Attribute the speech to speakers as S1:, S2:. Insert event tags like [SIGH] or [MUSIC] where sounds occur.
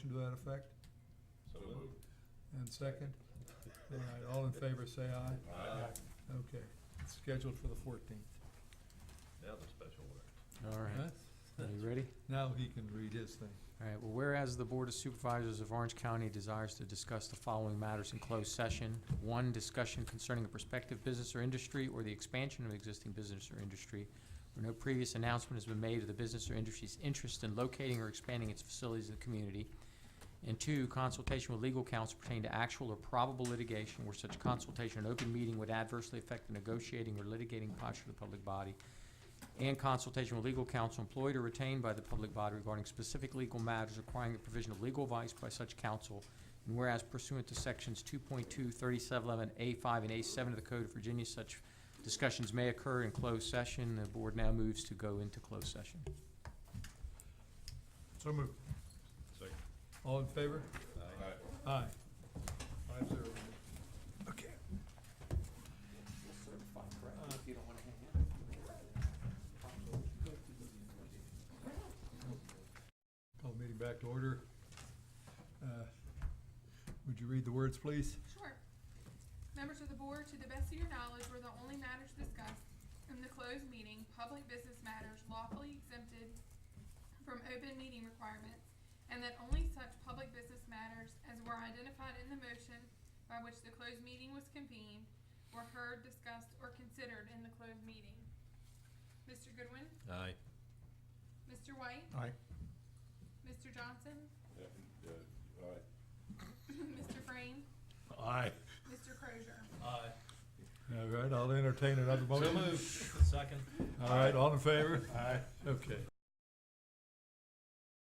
S1: to that effect?
S2: So moved.
S1: And second? All right, all in favor, say aye. Okay, it's scheduled for the fourteenth.
S2: Now the special word.
S3: All right, are you ready?
S1: Now he can read his thing.
S3: All right, well, whereas the Board of Supervisors of Orange County desires to discuss the following matters in closed session. One, discussion concerning a prospective business or industry or the expansion of existing business or industry where no previous announcement has been made of the business or industry's interest in locating or expanding its facilities in the community. And two, consultation with legal counsel pertaining to actual or probable litigation where such consultation in open meeting would adversely affect the negotiating or litigating posture of the public body and consultation with legal counsel employed or retained by the public body regarding specific legal matters requiring the provision of legal advice by such counsel. And whereas pursuant to sections 2.2, 3711, A five, and A seven of the Code of Virginia, such discussions may occur in closed session. The board now moves to go into closed session.
S1: So moved.
S2: Second.
S1: All in favor?
S2: Aye.
S1: Aye. Five zero. Okay. Call meeting back to order. Uh, Would you read the words, please?
S4: Sure. Members of the board, to the best of your knowledge, were the only matters discussed in the closed meeting, public business matters lawfully exempted from open meeting requirements, and that only such public business matters as were identified in the motion by which the closed meeting was convened were heard, discussed, or considered in the closed meeting. Mr. Goodwin,
S2: Aye.
S4: Mr. White,
S1: Aye.
S4: Mr. Johnson, [COUGHS]
S2: Aye.
S4: Mr. Frame,
S2: Aye.
S4: Mr. Crozier.
S2: Aye.
S1: All right, I'll entertain another motion.
S2: Second.
S1: All right, all in favor? Aye. Okay.